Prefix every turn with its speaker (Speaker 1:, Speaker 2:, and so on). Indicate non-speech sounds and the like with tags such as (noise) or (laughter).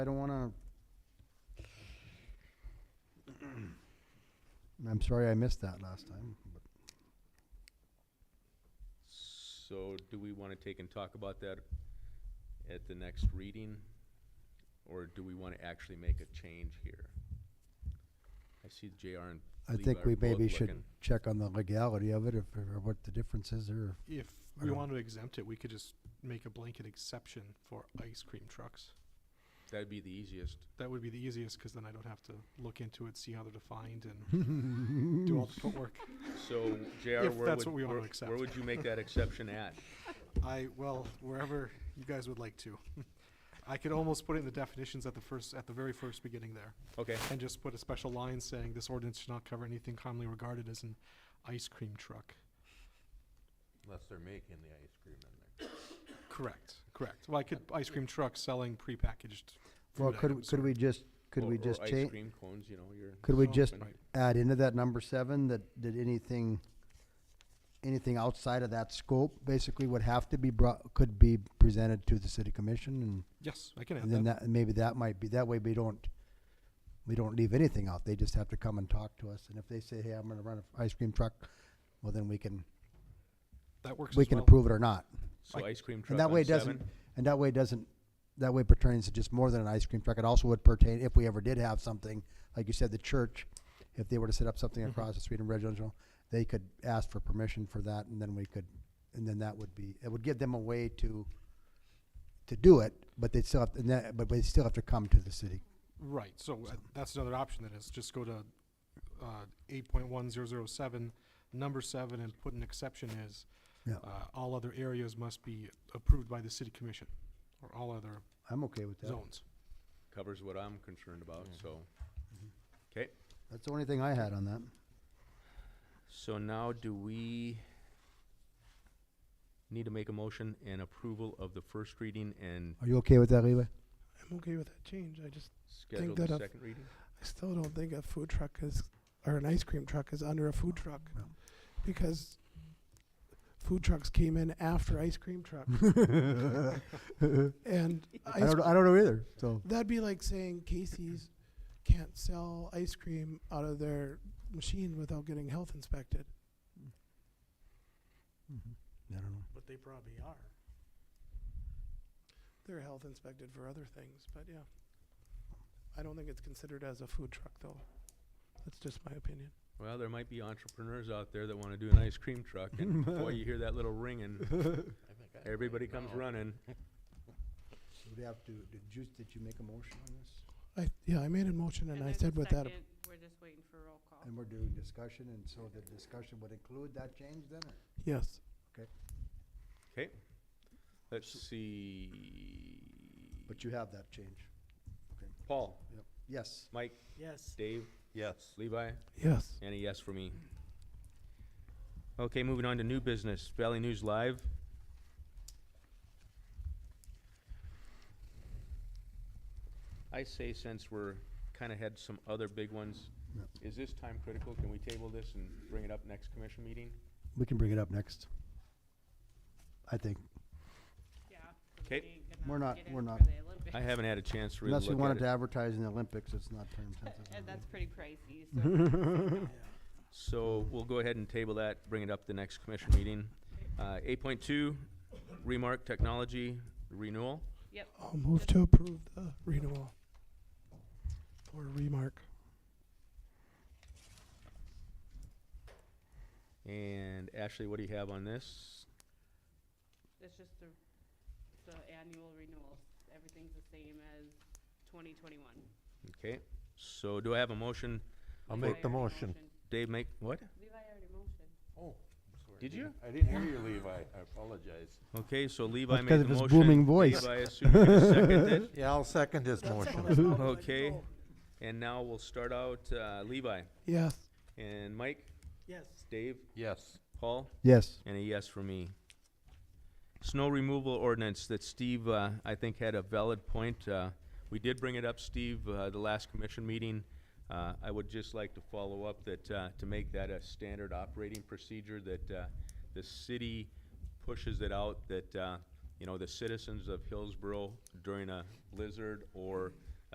Speaker 1: I don't wanna. (clears throat) I'm sorry I missed that last time, but
Speaker 2: So do we want to take and talk about that at the next reading? Or do we want to actually make a change here? I see JR and
Speaker 1: I
Speaker 2: Levi
Speaker 1: think
Speaker 2: are
Speaker 1: we
Speaker 2: both
Speaker 1: maybe should
Speaker 2: looking.
Speaker 1: check on the legality of it, if, or what the difference is, or,
Speaker 3: If
Speaker 1: I
Speaker 3: we
Speaker 1: don't-
Speaker 3: want to exempt it, we could just make a blanket exception for ice cream trucks.
Speaker 2: That'd be the easiest.
Speaker 3: That would be the easiest, because then I don't have to look into it, see how they're defined, and
Speaker 1: (laughs)
Speaker 3: do all the footwork.
Speaker 2: So JR,
Speaker 3: If
Speaker 2: where
Speaker 3: that's what
Speaker 2: would,
Speaker 3: we wanna
Speaker 2: where- where
Speaker 3: accept.
Speaker 2: would you make that exception at?
Speaker 3: I, well, wherever you guys would like to. (laughs) I could almost put it in the definitions at the first, at the very first beginning there,
Speaker 2: Okay,
Speaker 3: and just put a special line saying this ordinance should not cover anything commonly regarded as an ice cream truck.
Speaker 4: Unless they're making the ice cream in there.
Speaker 3: Correct, correct. Well, I could, ice cream truck selling prepackaged
Speaker 1: well,
Speaker 3: food
Speaker 1: could,
Speaker 3: items
Speaker 1: could
Speaker 3: or-
Speaker 1: we just, could
Speaker 2: Or-
Speaker 1: we
Speaker 2: or
Speaker 1: just
Speaker 2: Ice
Speaker 1: change,
Speaker 2: cream cones, you know, you're.
Speaker 1: could we
Speaker 3: Oh,
Speaker 1: just
Speaker 3: right.
Speaker 1: add into that number seven that, that anything, anything outside of that scope basically would have to be brought, could be presented to the city commission and
Speaker 3: Yes, I can add
Speaker 1: And then
Speaker 3: that.
Speaker 1: that, maybe that might be, that way we don't, we don't leave anything out, they just have to come and talk to us, and if they say, hey, I'm gonna run an ice cream truck, well, then we can,
Speaker 3: That works
Speaker 1: we
Speaker 3: as
Speaker 1: can
Speaker 3: well.
Speaker 1: approve it or not.
Speaker 2: So ice cream truck
Speaker 1: And that way
Speaker 2: on
Speaker 1: it doesn't,
Speaker 2: seven?
Speaker 1: and that way it doesn't, that way pertains to just more than an ice cream truck, it also would pertain, if we ever did have something, like you said, the church, if they were to set up something
Speaker 2: Mm-hmm.
Speaker 1: across the street in residential, they could ask for permission for that, and then we could, and then that would be, it would give them a way to, to do it, but they'd still have, and that, but they still have to come to the city
Speaker 3: Right, so uh, that's another option then, is just go to, uh, eight point one zero zero seven, number seven, and put an exception is,
Speaker 1: Yeah.
Speaker 3: uh, all other areas must be approved by the city commission, or all other
Speaker 1: I'm okay with that.
Speaker 3: zones.
Speaker 2: Covers what I'm concerned about, so.
Speaker 3: Mm-hmm.
Speaker 2: Okay.
Speaker 1: That's the only thing I had on that.
Speaker 2: So now do we need to make a motion and approval of the first reading and
Speaker 1: Are you okay with that, Levi?
Speaker 5: I'm okay with that change. I just
Speaker 2: schedule the
Speaker 5: that I've-
Speaker 2: second reading?
Speaker 5: I still don't think a food truck is or an ice cream truck is under a food truck
Speaker 1: Yeah.
Speaker 5: because food trucks came in after ice
Speaker 1: (laughs)
Speaker 5: cream truck and
Speaker 1: I
Speaker 5: ice,
Speaker 1: don't, I don't know either, so.
Speaker 5: that'd be like saying Casey's can't sell ice cream out of their machine without getting health inspected.
Speaker 1: I don't know.
Speaker 5: But they probably are. They're health inspected for other things, but yeah. I don't think it's considered as a food truck though. That's just my opinion.
Speaker 2: Well, there might be entrepreneurs out there that wanna do an ice cream truck and boy, you hear that little ringing,
Speaker 4: I think I might
Speaker 3: (laughs)
Speaker 2: everybody comes
Speaker 4: know.
Speaker 2: running.
Speaker 1: We'd have to, did you, did you make a motion on this?
Speaker 5: I, yeah, I made a motion and I
Speaker 6: there's
Speaker 5: said
Speaker 6: a
Speaker 5: with that,
Speaker 6: second. We're just waiting for roll call.
Speaker 1: And we're doing discussion, and so the discussion would include that change then? or-
Speaker 5: yes.
Speaker 2: Okay, let's see.
Speaker 1: But you have that change.
Speaker 2: Paul,
Speaker 1: Yes.
Speaker 2: Mike,
Speaker 5: Yes.
Speaker 2: Dave,
Speaker 4: Yes.
Speaker 2: Levi,
Speaker 5: Yes.
Speaker 2: and a yes for me. Okay, moving on to new business, Valley News Live. I say since we're kinda had some other big ones,
Speaker 1: Yep.
Speaker 2: is this time critical? Can we table this and bring it up next commission meeting?
Speaker 1: We can bring it up next. I think,
Speaker 6: Yeah.
Speaker 2: 'Kay.
Speaker 1: We're not- we're not-
Speaker 2: I haven't had a chance to really
Speaker 1: unless we
Speaker 2: look
Speaker 1: wanted
Speaker 2: at
Speaker 1: to
Speaker 2: it.
Speaker 1: advertise in the Olympics, it's not time sensitive.
Speaker 6: (laughs) (laughs) And
Speaker 1: I
Speaker 6: that's
Speaker 1: think.
Speaker 6: pretty pricey,
Speaker 1: Mm-hmm. (laughs)
Speaker 6: so.
Speaker 2: So we'll go ahead and table that, bring it up the next commission meeting. Uh, eight point two, Remark Technology Renewal.
Speaker 6: Yep,
Speaker 5: I'll move to approve the renewal for remark.
Speaker 2: And Ashley, what do you have on this?
Speaker 6: it's just the, the annual renewal. Everything's the same as twenty twenty-one.
Speaker 2: Okay, so do I have a motion?
Speaker 4: I'll make the motion.
Speaker 2: Dave, make, what?
Speaker 6: Levi already motioned.
Speaker 4: Oh, I'm sorry.
Speaker 2: Did
Speaker 4: I
Speaker 2: you?
Speaker 4: didn't- I didn't hear you, Levi. I apologize.
Speaker 2: Okay, so Levi made the
Speaker 1: because
Speaker 2: motion.
Speaker 1: of his booming voice.
Speaker 2: Dave, I assume you're gonna
Speaker 1: (laughs)
Speaker 2: second it.
Speaker 4: Yeah, I'll second his motion.
Speaker 5: Oh,
Speaker 2: Okay, and now we'll start out, uh, Levi
Speaker 5: Yes.
Speaker 2: and Mike,
Speaker 5: Yes.
Speaker 2: Dave,
Speaker 4: Yes.
Speaker 2: Paul,
Speaker 1: Yes.
Speaker 2: and a yes for me. Snow removal ordinance that Steve, uh, I think had a valid point. Uh, we did bring it up, Steve, uh, the last commission meeting. Uh, I would just like to follow up that, uh, to make that a standard operating procedure, that, uh, the city pushes it out, that, uh, you know, the citizens of Hillsborough during a blizzard or